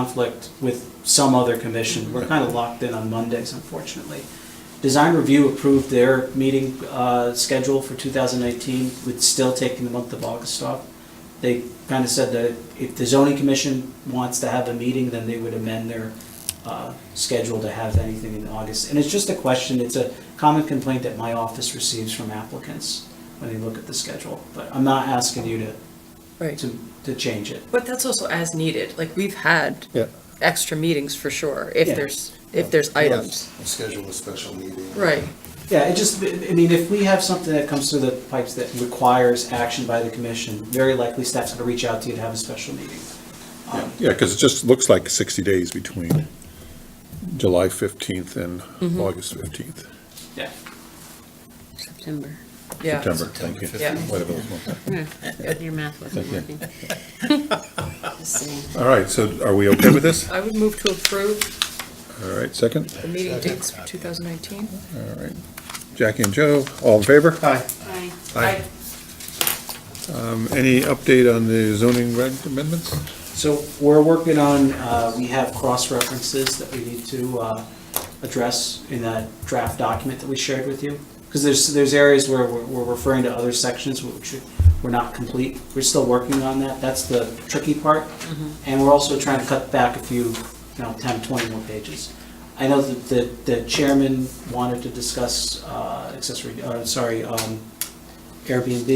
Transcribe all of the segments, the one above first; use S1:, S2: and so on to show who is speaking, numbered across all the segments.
S1: conflict with some other commission. We're kind of locked in on Mondays, unfortunately. Design Review approved their meeting uh, schedule for 2019 with still taking the month of August off. They kind of said that if the zoning commission wants to have a meeting, then they would amend their uh, schedule to have anything in August. And it's just a question, it's a common complaint that my office receives from applicants when they look at the schedule. But I'm not asking you to,
S2: Right,
S1: to, to change it.
S2: but that's also as needed, like, we've had
S3: Yeah.
S2: extra meetings for sure, if
S1: Yeah.
S2: there's, if there's items.
S4: Schedule a special meeting.
S2: Right,
S1: Yeah, it just, I mean, if we have something that comes through the pipes that requires action by the commission, very likely staff's gonna reach out to you to have a special meeting. Um,
S3: Yeah, because it just looks like 60 days between July 15th and August 15th,
S1: Yeah,
S5: September.
S2: yeah.
S3: September, thank you.
S2: September 15th.
S3: Whatever those months are.
S5: Yeah, Your math wasn't
S3: Thank you.
S5: working. Just saying.
S3: All right, so are we okay with this?
S2: I would move to approve
S3: All right, second,
S2: the meeting dates for 2019.
S3: all right. Jackie and Joe, all in favor? Aye.
S5: Aye.
S3: Aye. Um, Any update on the zoning reg amendments?
S1: so we're working on, uh, we have cross references that we need to, uh, address in that draft document that we shared with you. Cause there's, there's areas where we're, we're referring to other sections which were not complete. We're still working on that. That's the tricky part. And we're also trying to cut back a few, you know, 10, 20 more pages. I know that the- the chairman wanted to discuss uh, accessory, uh, sorry, um, Airbnb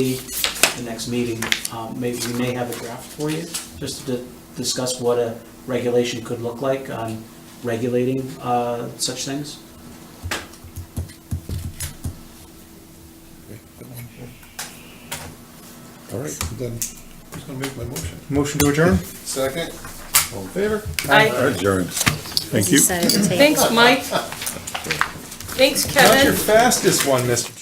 S1: at the next meeting. Um, Maybe we may have a draft for you, just to discuss what a regulation could look like on regulating uh, such things.
S3: All right, then, who's going to make my motion?
S6: Motion to adjourn?
S4: Second?
S3: All in favor?
S2: Aye.
S3: All right, Adjourned. Thank you.
S5: Decided to take-
S2: Thanks, Mike. Thanks,
S6: Not
S2: Kevin.
S6: your fastest one, Mr.